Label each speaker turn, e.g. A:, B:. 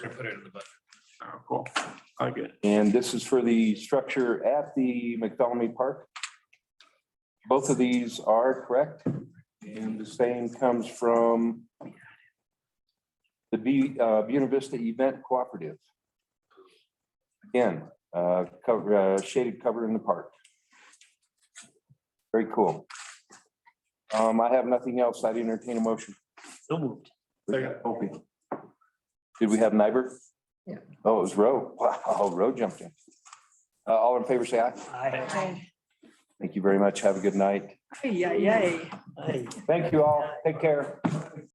A: Gonna put it in the budget.
B: Oh, cool. I like it.
C: And this is for the structure at the McDonald Park. Both of these are correct, and the same comes from the B, uh, Buena Vista Event Cooperative. Again, uh, cover, uh, shaded cover in the park. Very cool. Um, I have nothing else. I'd entertain a motion.
A: So moved.
C: Okay. Did we have Niber?
D: Yeah.
C: Oh, it was Roe. Wow, Roe jumped in. Uh, all in favor, say aye. Thank you very much. Have a good night.
D: Yay, yay.
C: Thank you all. Take care.